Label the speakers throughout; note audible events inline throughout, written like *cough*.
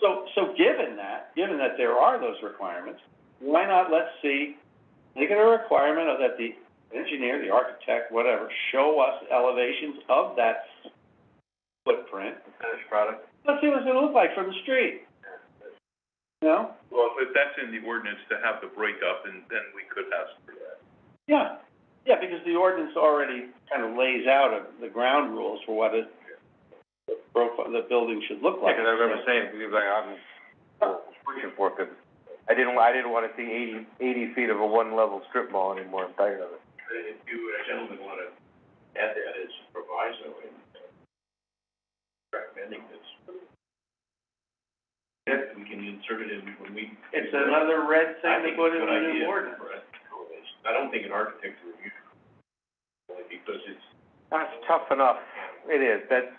Speaker 1: So, so given that, given that there are those requirements, why not let's see, make it a requirement of that the engineer, the architect, whatever, show us elevations of that footprint.
Speaker 2: Finished product.
Speaker 1: Let's see what it look like from the street. You know?
Speaker 2: Well, if that's in the ordinance to have the breakup, and then we could ask for that.
Speaker 1: Yeah, yeah, because the ordinance already kind of lays out of the ground rules for what it, the profile, the building should look like.
Speaker 3: Yeah, 'cause I remember saying, we were like, I'm pushing for it, 'cause I didn't, I didn't wanna see eighty, eighty feet of a one-level strip mall anymore, I'm tired of it.
Speaker 2: If you, gentlemen, wanna add that as proviso in recommending this. Yes, we can insert it in when we.
Speaker 1: It's another red thing to put in the new ordinance.
Speaker 2: I don't think an architect would use it, only because it's.
Speaker 3: That's tough enough, it is, that's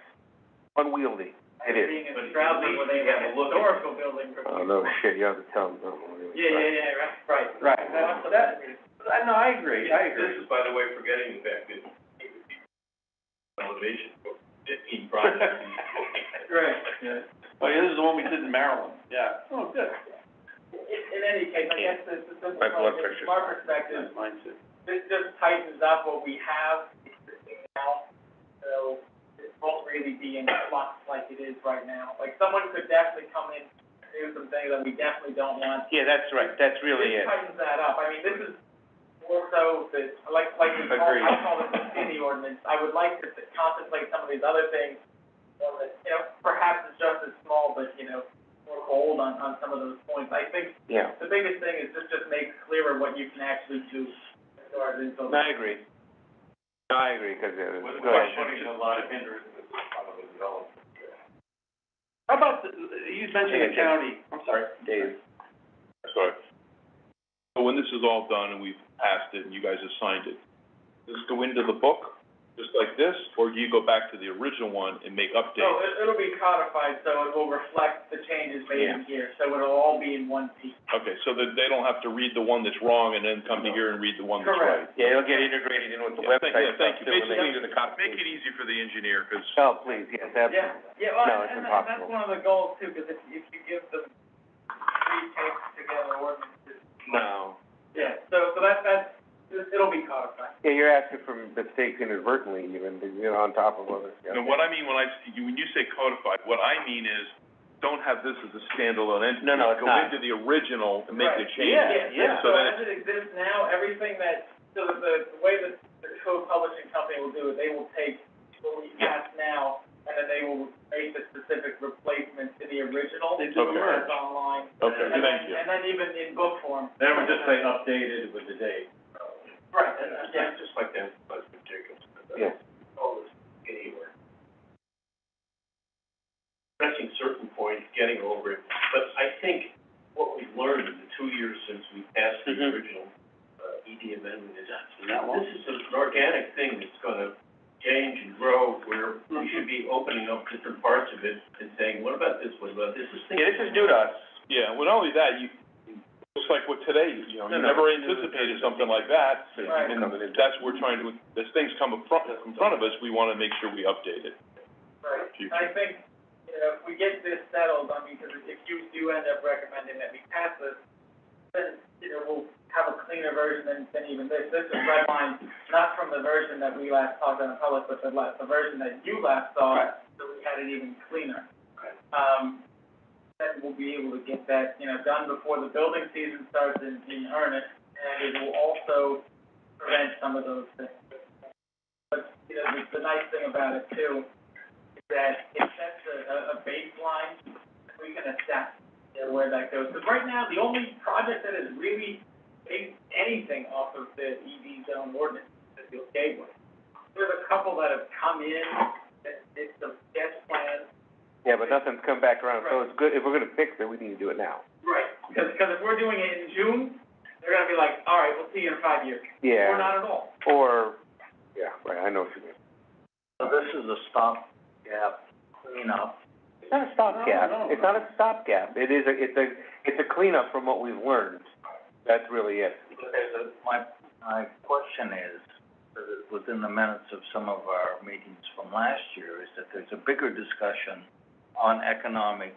Speaker 3: unwieldy, it is.
Speaker 2: But it's probably when they have a historical building.
Speaker 3: Oh, no, shit, you have to tell them, don't worry.
Speaker 2: yeah, right, right.
Speaker 1: Right, that, that, I- Uh, no, I agree, I agree.
Speaker 2: This is, by the way, forgetting the fact that elevation for fifteen projects.
Speaker 1: Right, yeah. *laughs* Oh, yeah, this is the one we did in Maryland. Yeah. Oh, good.
Speaker 4: In, in any case, I guess the, the simple
Speaker 3: My blood
Speaker 4: part,
Speaker 3: pressure's
Speaker 4: from our perspective,
Speaker 1: Mine too.
Speaker 4: *laughs* this just tightens up what we have existing now. So it won't really be in flux like it is right now. Like, someone could definitely come in and do some things that we definitely don't want.
Speaker 3: Yeah, that's right, that's
Speaker 4: This tightens that up. I mean, this is more so the, like, like we call, I
Speaker 3: Agreed.
Speaker 4: call it the city ordinance. I would like to contemplate some of these other things. Or that, you know, perhaps it's just as small, but, you know, more bold on, on some of those points. I think
Speaker 3: Yeah.
Speaker 4: the biggest thing is this just makes clearer what you can actually do as far as
Speaker 3: No,
Speaker 4: info.
Speaker 3: I agree. No, I agree, 'cause it was, go ahead.
Speaker 2: Putting a lot of hindrances in front of the development.
Speaker 1: How about, the- you mentioned the county, I'm sorry.
Speaker 3: Dave.
Speaker 2: Sorry. So when this is all done and we've passed it and you guys have signed it, does this go into the book, just like this, or do you go back to the original one and make
Speaker 4: So
Speaker 2: updates?
Speaker 4: it, it'll be codified, so it will reflect the changes made in here, so it'll all be in one piece.
Speaker 2: Okay, so that they don't have to read the one that's wrong and then come to here and read the one that's right.
Speaker 4: Correct.
Speaker 3: Yeah, it'll get integrated in with the
Speaker 2: Yeah, thank- yeah, thank
Speaker 3: website
Speaker 2: you.
Speaker 3: stuff too, when they
Speaker 2: Basically,
Speaker 3: do the copy.
Speaker 2: easy for the engineer, 'cause
Speaker 3: Oh, please, yes, absolutely.
Speaker 4: Yeah, yeah, well,
Speaker 3: No, it's
Speaker 4: and, and that- that's
Speaker 3: impossible.
Speaker 4: one of the goals too, because if, if you give them three tapes together ordinances,
Speaker 3: No.
Speaker 4: yeah, so, so that, that's, it'll be codified.
Speaker 3: Yeah, you're asking for mistakes inadvertently even, you know, on top of others, yeah.
Speaker 2: No, what I mean when I, you- when you say codified, what I mean is, don't have this as a standalone entity.
Speaker 3: No, no, it's not.
Speaker 2: Go into the original and make the
Speaker 4: Right.
Speaker 2: changes.
Speaker 1: Yeah, yeah.
Speaker 2: So
Speaker 4: So
Speaker 2: then
Speaker 4: as it exists now, everything that, so the, the the way that the co-publishing company will do it, they will take what we
Speaker 2: Yeah.
Speaker 4: have now, and then they will make the specific replacement to the original.
Speaker 1: They do a
Speaker 2: Okay.
Speaker 1: merge.
Speaker 4: That's online.
Speaker 2: Okay,
Speaker 4: And then,
Speaker 2: thank you.
Speaker 4: and then even in book form.
Speaker 2: Then we just say updated with the date.
Speaker 4: Right, and, and, yeah,
Speaker 2: just like that, but Jacobs.
Speaker 3: Yeah.
Speaker 2: All this, anywhere. Pressing certain points, getting over it, but I think what we've learned in the two years since we passed the
Speaker 3: Mhm.
Speaker 2: original, uh, ED amendment is
Speaker 1: Not long.
Speaker 2: this is an organic thing that's gonna change and grow, where
Speaker 3: Mm-hmm.
Speaker 2: we
Speaker 1: Mhm.
Speaker 2: should be opening up different parts of it and saying, what about this, what about this, this thing.
Speaker 3: Yeah, this is new to us.
Speaker 2: Yeah, well, not only that, you, just like with today, you know,
Speaker 3: you No, no. never
Speaker 2: anticipated something like that,
Speaker 4: Right.
Speaker 2: and that's what we're trying to, as things come in front, in front of us, we wanna make sure we update it.
Speaker 4: right.
Speaker 2: Future.
Speaker 4: I think, you know, if we get this settled, I mean, because if you do end up recommending that we pass this, then, you know, we'll have a cleaner version than, than even this. This is redlined, not from the version that we last talked on public, but the la the version that you last saw,
Speaker 1: Right.
Speaker 4: so we had it even cleaner. Um, then we'll be able to get that, you know, done before the building season starts in, in earnest, and it will also prevent some of those things. But, you know, the, the nice thing about it too, is that it sets a, a, a baseline, that we can assess, you know, where that goes. Because right now, the only project that is really based anything off of the EV zone ordinance is the gateway. There's a couple that have come in, that did some sketch plans,
Speaker 3: Yeah, but nothing's come back around, so it's good, if we're gonna fix it, we need to do it now.
Speaker 4: Right, because, because if we're doing it in June, they're gonna be like, all right, we'll see you in five years, or
Speaker 3: Yeah,
Speaker 4: not at all.
Speaker 3: or, yeah, right, I know what you mean.
Speaker 5: So this is a stop gap cleanup.
Speaker 3: It's not a stopgap,
Speaker 1: No, no,
Speaker 3: it's not a stopgap, it is a, it's a, it's a cleanup from what we've learned. That's really it.
Speaker 5: There's a, my, my question is, uh, within the minutes of some of our meetings from last year, is that there's a bigger discussion on economic